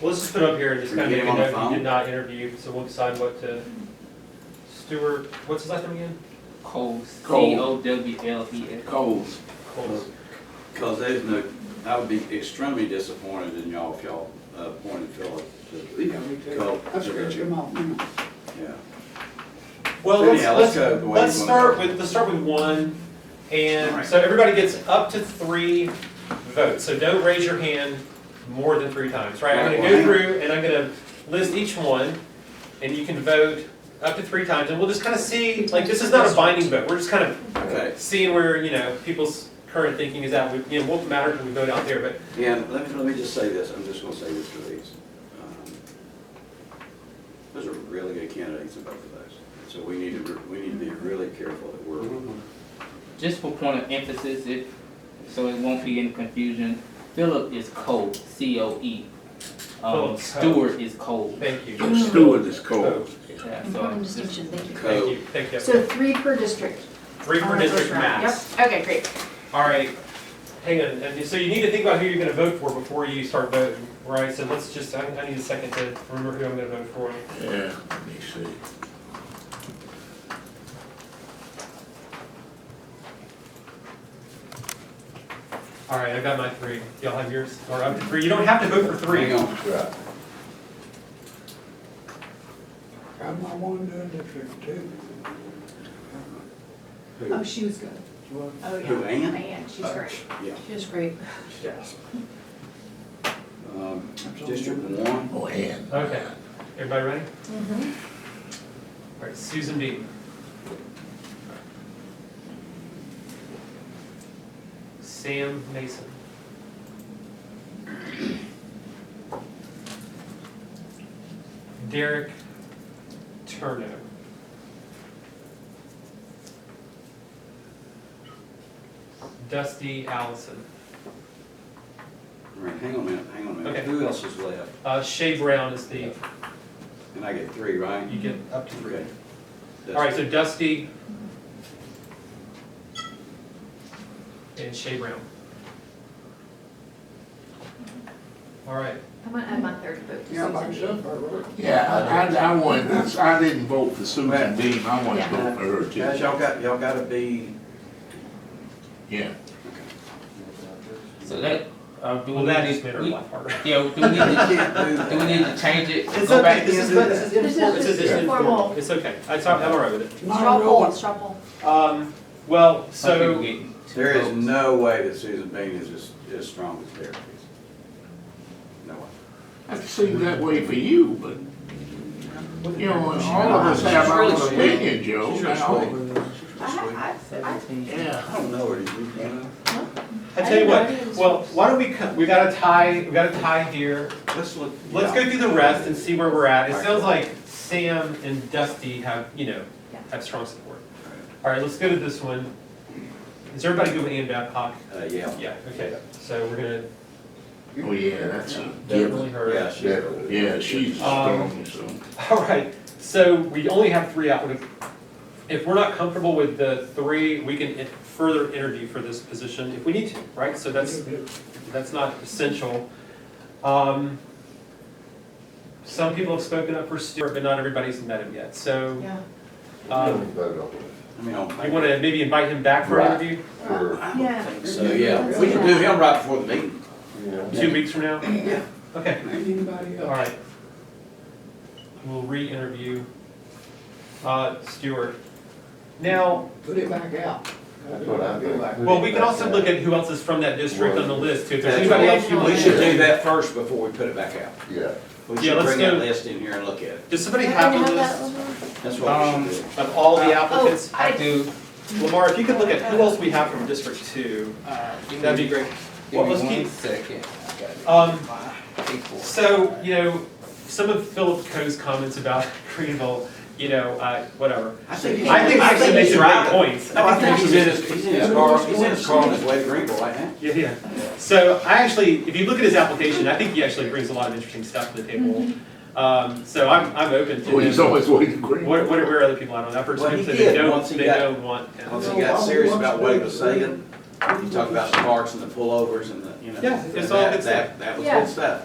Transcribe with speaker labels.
Speaker 1: Well, let's just put up here and just
Speaker 2: Can we
Speaker 1: kind of
Speaker 2: get
Speaker 1: make
Speaker 2: him
Speaker 1: a
Speaker 2: on the
Speaker 1: note, you
Speaker 2: phone?
Speaker 1: did not interview, so we'll decide what to, Stuart, what's his last name again?
Speaker 3: Coles,
Speaker 2: Coles.
Speaker 3: C O W L E S.
Speaker 2: Coles,
Speaker 1: Coles.
Speaker 2: because there's no, I would be extremely disappointed in y'all if y'all uh, appointed Philip to.
Speaker 4: Yeah, me too.
Speaker 2: Cool.
Speaker 4: I'll scratch him off. now.
Speaker 2: Yeah.
Speaker 1: Well,
Speaker 2: So
Speaker 1: let's,
Speaker 2: anyhow, let's
Speaker 1: let's,
Speaker 2: go the way
Speaker 1: let's
Speaker 2: you wanna go.
Speaker 1: start with, let's start with one, and
Speaker 2: Alright.
Speaker 1: so everybody gets up to three votes, so don't raise your hand more than three times, right? I'm gonna go
Speaker 2: Right.
Speaker 1: through and I'm gonna list each one, and you can vote up to three times, and we'll just kind of see, like, this is not a binding vote, we're just kind of
Speaker 2: Okay,
Speaker 1: seeing where, you know, people's current thinking is at, we, you know, won't matter if we vote out there, but
Speaker 2: and let me, let me just say this, I'm just gonna say this to these. Um, Those are really good candidates in both of those, so we need to, re- we need to be really careful that we're,
Speaker 3: Just for point of emphasis, if, so it won't be any confusion, Philip is Cole, C O E.
Speaker 1: Philip Cole.
Speaker 3: Um, Stewart is Cole.
Speaker 1: thank you.
Speaker 4: Mm.
Speaker 5: Steward is
Speaker 4: Oh.
Speaker 5: cold.
Speaker 3: Yeah, so
Speaker 6: Important
Speaker 3: it's just-
Speaker 6: distinction, thank you.
Speaker 1: Thank you, thank you.
Speaker 6: So three per district.
Speaker 1: Three
Speaker 6: on
Speaker 1: for
Speaker 6: the first
Speaker 1: district
Speaker 6: round.
Speaker 1: max.
Speaker 6: Yep, okay, great.
Speaker 1: All right, hang on, and so you need to think about who you're gonna vote for before you start voting, right? So let's just, I, I need a second to remember who I'm gonna vote for.
Speaker 5: Yeah, let me see.
Speaker 1: All right, I got my three, y'all have yours, or up to three, you don't have to vote for
Speaker 2: hang
Speaker 1: three.
Speaker 2: on.
Speaker 4: I'm not one doing district two.
Speaker 6: Oh, she was good. Oh, yeah.
Speaker 2: Who, Ann?
Speaker 6: Ann, she's
Speaker 1: Uh,
Speaker 6: great.
Speaker 2: Yeah.
Speaker 6: She was great.
Speaker 1: Yes.
Speaker 2: Um, District one,
Speaker 5: Oh, and.
Speaker 1: Okay, everybody ready?
Speaker 6: Mm-hmm.
Speaker 1: All right, Susan Dean. Sam Mason. Derek Turner. Dusty Allison.
Speaker 2: all right, hang on a minute, hang on a minute,
Speaker 1: Okay.
Speaker 2: who else is left?
Speaker 1: Uh, Shay Brown is the,
Speaker 2: And I get three, right?
Speaker 1: you get up to three.
Speaker 2: Okay.
Speaker 1: All right, so Dusty and Shay Brown. All right,
Speaker 6: I'm gonna add my third vote
Speaker 4: Yeah, by
Speaker 6: to Susan.
Speaker 4: myself, I wrote.
Speaker 5: Yeah, I, I, I wanted, this- I didn't vote for Susan Dean, I wanted to vote for her
Speaker 2: Guys,
Speaker 5: too.
Speaker 2: y'all got, y'all gotta be,
Speaker 5: Yeah,
Speaker 3: so that, uh, do we
Speaker 1: well, that is better
Speaker 3: need,
Speaker 1: than
Speaker 3: we,
Speaker 1: my part.
Speaker 3: yeah, do we need
Speaker 2: you
Speaker 3: to,
Speaker 2: can't do that.
Speaker 3: do we need to change it?
Speaker 2: It's
Speaker 3: Go
Speaker 2: okay,
Speaker 3: back?
Speaker 2: this is, this is
Speaker 6: This
Speaker 2: informal.
Speaker 6: is
Speaker 1: This is
Speaker 6: just informal.
Speaker 1: It's okay, I talk, I'm all right with
Speaker 4: It's
Speaker 6: Straw
Speaker 4: not a
Speaker 6: poll,
Speaker 4: rule.
Speaker 6: straw poll.
Speaker 1: it. Um, well,
Speaker 3: Some people
Speaker 1: so,
Speaker 3: get two
Speaker 2: There is
Speaker 3: votes.
Speaker 2: no way that Susan Bean is as, as strong as Derek is. No way.
Speaker 5: it seemed that way for you, but, you know, all of us have our
Speaker 2: She's
Speaker 5: own
Speaker 2: really
Speaker 5: opinion, Joe.
Speaker 2: She's really
Speaker 5: now.
Speaker 6: I, I, I,
Speaker 5: Yeah.
Speaker 2: I don't know her, do you, you know?
Speaker 1: I tell you
Speaker 6: I
Speaker 1: what,
Speaker 6: didn't know.
Speaker 1: well, why don't we, co- we got a tie, we got a tie here.
Speaker 2: Let's look.
Speaker 1: Let's go through the rest and see where we're at. It sounds like Sam and Dusty have, you know,
Speaker 6: Yeah.
Speaker 1: have strong support. All right, let's go to this one. Is everybody good with Ann Babcock?
Speaker 2: Uh, yeah,
Speaker 1: Yeah, okay, so we're gonna
Speaker 5: Oh, yeah, that's a
Speaker 1: definitely
Speaker 5: given.
Speaker 2: yeah,
Speaker 1: her.
Speaker 2: she's.
Speaker 5: That- Yeah, she's strong, so.
Speaker 1: All right, so we only have three out. If we're not comfortable with the three, we can in- further interview for this position if we need to, right? So that's, that's not essential. Um, Some people have spoken up for Stuart, but not everybody's met him yet, so.
Speaker 6: yeah.
Speaker 1: um,
Speaker 2: I mean, I
Speaker 1: You
Speaker 2: don't think.
Speaker 1: wanna maybe invite him back for an
Speaker 7: Right.
Speaker 1: interview
Speaker 7: for,
Speaker 2: I don't
Speaker 6: Yeah.
Speaker 2: think So, yeah, we can do him right before the meeting.
Speaker 7: you know,
Speaker 1: two weeks from now?
Speaker 2: Yeah.
Speaker 1: Okay,
Speaker 4: Ain't anybody
Speaker 1: all
Speaker 4: else.
Speaker 1: right. We'll re-interview uh, Stuart. Now,
Speaker 4: Put it back out.
Speaker 7: That's what I think.
Speaker 4: Back.
Speaker 1: well, we can also look at who else is from that district on the list too. If there's anybody else you
Speaker 2: We
Speaker 1: want
Speaker 2: should
Speaker 1: to,
Speaker 2: do that first before we put it back out.
Speaker 7: yeah.
Speaker 2: We
Speaker 1: Yeah,
Speaker 2: should
Speaker 1: let's
Speaker 2: bring that
Speaker 1: do-
Speaker 2: list in here and look at it.
Speaker 1: does somebody
Speaker 6: Can I
Speaker 1: have a
Speaker 6: that
Speaker 1: list
Speaker 6: over?
Speaker 2: That's what we
Speaker 3: Um,
Speaker 2: should do.
Speaker 1: of all the applicants?
Speaker 6: Oh,
Speaker 3: I do,
Speaker 1: Lamar, if you could look at who else we have from District Two,
Speaker 3: uh, give
Speaker 1: that'd be
Speaker 3: me,
Speaker 1: great.
Speaker 3: give
Speaker 1: Well,
Speaker 3: me
Speaker 1: let's keep,
Speaker 3: one second. I got it.
Speaker 1: um,
Speaker 3: People.
Speaker 1: So, you know, some of Philip Coe's comments about Greenville, you know, uh, whatever.
Speaker 2: I think,
Speaker 1: I think
Speaker 2: I
Speaker 1: actually
Speaker 2: think
Speaker 1: makes
Speaker 2: he's
Speaker 1: some
Speaker 2: right.
Speaker 1: great points.
Speaker 2: No, I think he's in his, he's in his car,
Speaker 4: Yeah.
Speaker 2: he's in his car on his way to Greenville right now.
Speaker 1: Yeah, yeah. So I actually, if you look at his application, I think he actually brings a lot of interesting stuff to the table. Um, so I'm, I'm open to
Speaker 5: Oh, he's
Speaker 1: him.
Speaker 5: always waiting green.
Speaker 1: What, what are, where are other people at on that person?
Speaker 2: Well, he
Speaker 1: So they
Speaker 2: did
Speaker 1: don't,
Speaker 2: once he
Speaker 1: they
Speaker 2: got-
Speaker 1: don't want him.
Speaker 2: Once he got serious about what he was saying, he talked about the parks and the pullovers and the, you know.
Speaker 1: Yeah, it's
Speaker 2: and
Speaker 1: all
Speaker 2: that-
Speaker 1: good stuff.
Speaker 2: That, that was
Speaker 6: Yeah.
Speaker 2: good stuff.